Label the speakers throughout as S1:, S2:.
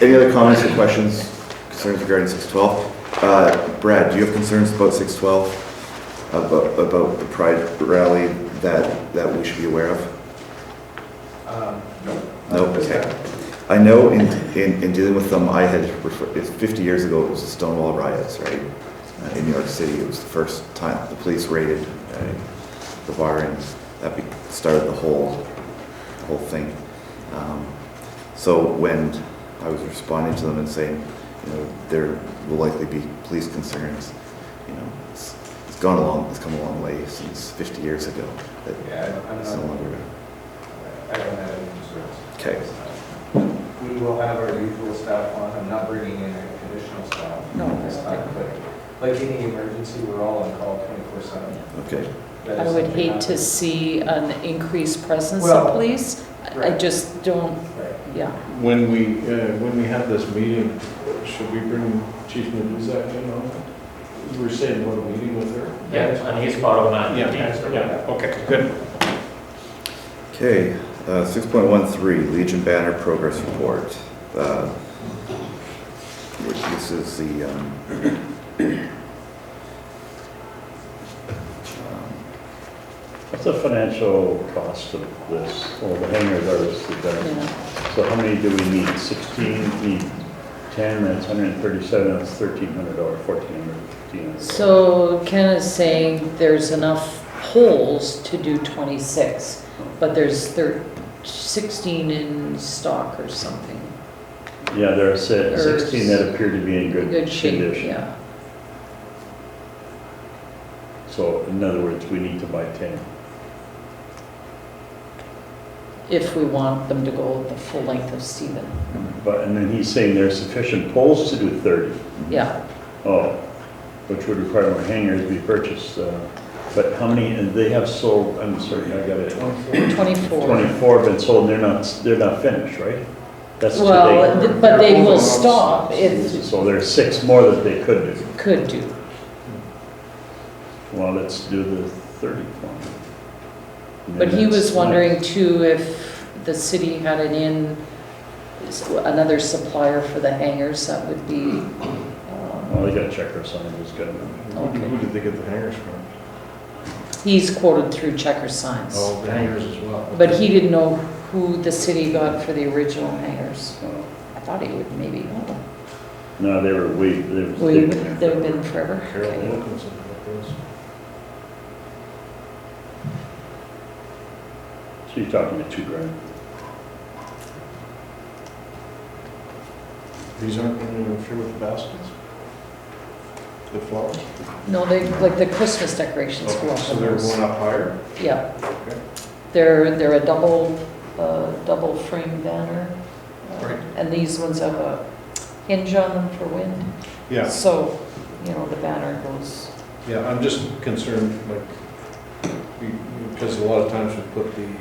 S1: Any other comments or questions, concerns regarding 612? Uh, Brad, do you have concerns about 612? About, about the pride rally that, that we should be aware of?
S2: Um,
S1: No, okay. I know in, in, in dealing with them, I had, refer- it's 50 years ago, it was the Stonewall riots, right? Uh, In New York City, it was the first time the police raided uh, the bar and that be- started the whole, the whole thing. Um, So when I was responding to them and saying, you know, there will likely be police concerns, you know, it's, it's gone along, it's come a long way since 50 years ago. that
S2: Yeah, I- I'm
S1: It's no
S2: not-
S1: longer,
S2: I don't have any concerns.
S1: okay,
S2: We will have our usual staff on, I'm not bringing in additional staff.
S3: No,
S2: This
S3: that's
S2: time, but like any emergency, we're all on call twenty-four seven.
S1: okay.
S3: I would hate to see an increased presence of
S2: Well,
S3: police. I- I
S2: right.
S3: just don't,
S2: Right.
S3: yeah.
S4: When we, uh, when we have this meeting, should we bring Chief Nabuzak in on it? You were saying we're meeting with her?
S5: Yeah, and he's part of that.
S4: Yeah,
S5: so-
S4: yeah, okay, good.
S1: Okay, uh, 6.13, Legion Banner Progress Report. Uh, This is the, um, um,
S6: What's the financial cost of this, or the hangers are, the
S3: Yeah.
S6: So how many do we need? Sixteen, need ten, that's hundred and thirty-seven, that's thirteen hundred dollars, fourteen hundred, fifteen hundred.
S3: So Ken is saying there's enough poles to do 26, but there's thir- 16 in stock or something.
S6: Yeah, there are se-
S3: There's-
S6: sixteen that appear to be in
S3: In
S6: good
S3: Good shape,
S6: condition.
S3: yeah.
S6: So in other words, we need to buy ten.
S3: If we want them to go the full length of Stephen.
S6: But, and then he's saying there are sufficient poles to do thirty.
S3: Yeah,
S6: Oh, which would require more hangers to be purchased, uh, but how many, and they have sold, I'm sorry, I got it.
S3: 24.
S6: 24 have been sold, and they're not, they're not finished, right? That's
S3: Well,
S6: today.
S3: th- but they will stop if
S6: So there's six more that they could do.
S3: could do.
S6: Well, let's do the 30 one. And
S3: But he
S6: that's
S3: was
S6: nice.
S3: wondering too if the city had an in, another supplier for the hangers, that would be,
S4: Hmm.
S3: um,
S6: Well,
S4: Oh,
S6: they gotta check or something, who's gonna,
S4: Who did- who did they get the hangers from?
S3: he's quoted through checker signs.
S4: Oh, the hangers as well.
S3: But he didn't know who the city got for the original hangers. I thought he would maybe, know.
S6: no, they were weak. They
S3: Well,
S6: were-
S3: you-
S6: they-
S3: they've been forever.
S4: Carol
S3: Okay.
S4: Wilkinson got those.
S6: So you're talking to two grand.
S4: These aren't going to interfere with the baskets? The flowers?
S3: No, they, like the Christmas decorations go
S4: Okay,
S3: up
S4: So
S3: on
S4: they're
S3: those.
S4: going up higher?
S3: Yeah.
S4: Okay.
S3: They're, they're a double, uh, double frame banner. uh,
S4: Right.
S3: And these ones have a hinge on them for wind.
S4: Yeah,
S3: So, you know, the banner goes,
S4: yeah, I'm just concerned, like, we- because a lot of times we put the, uh,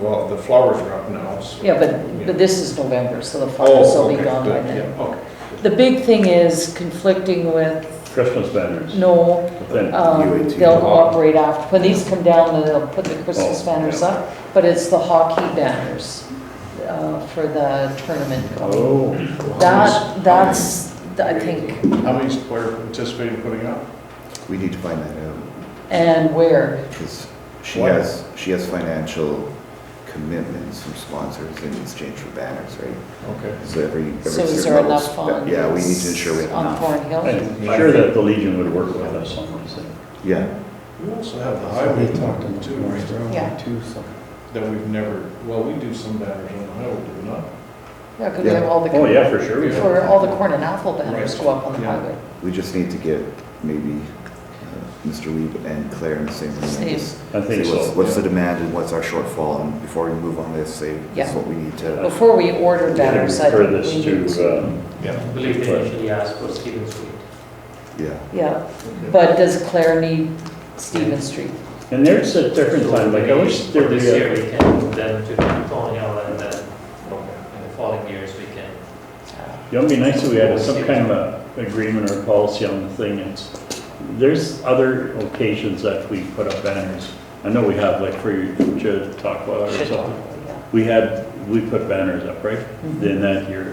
S4: well, the flowers are up now, so.
S3: yeah, but, but this is November, so the flowers
S4: Oh,
S3: will be
S4: okay,
S3: gone by
S4: good,
S3: then.
S4: yeah, okay.
S3: The big thing is conflicting with,
S6: Christmas banners.
S3: no,
S6: But then,
S3: um,
S1: UAT.
S3: they'll cooperate after. When these come down, then they'll put the Christmas
S6: Oh,
S3: banners
S6: yeah.
S3: up, but it's the hockey banners, uh, for the tournament going.
S6: oh,
S3: That, that's, I think,
S4: How many's the player anticipating putting up?
S1: we need to find that out,
S3: And where?
S1: because she
S4: Why?
S1: has, she has financial commitments from sponsors in exchange for banners, right?
S4: Okay.
S1: So every, every
S3: So
S1: certain
S3: is there
S1: level-
S3: enough on?
S1: Yeah, we need to ensure we have
S3: On
S1: enough.
S3: Thornhill?
S6: I'm sure that the Legion would work with us on this thing.
S1: Yeah,
S4: We also have the highway talking too, right?
S3: Yeah.
S4: That we've never, well, we do some banners on the highway, do we not?
S3: Yeah, because we have
S1: Yeah.
S3: all the.
S6: Oh, yeah, for sure. we
S3: For all the corn and apple banners
S4: Right.
S3: go up on the
S4: Yeah.
S3: highway.
S1: we just need to get maybe uh, Mr. Weeb and Claire in the same room. and
S3: Same.
S1: just
S6: I think
S1: See what's-
S6: so.
S1: What's the demand and what's our shortfall, and before we move on this, say, this
S3: Yeah.
S1: is what we need to,
S3: Before we order
S6: We should
S3: banners, I
S6: refer
S3: think we need
S6: this
S3: to.
S6: to, um,
S5: I believe they initially asked for Stephen Street.
S1: yeah.
S3: Yeah, but does Claire need Stephen Street?
S6: And there's a different time, like I wish there
S5: For
S6: was.
S5: This year, we can move them to Colonial and then in the following years, we can.
S6: It would be nice if we had some kind of a agreement or policy on the thing. It's, there's other occasions that we put up banners. I know we have, like for your Chautauqua or something.
S3: Yeah.
S6: We had, we put banners up, right?
S3: Mhm.
S6: Then that year,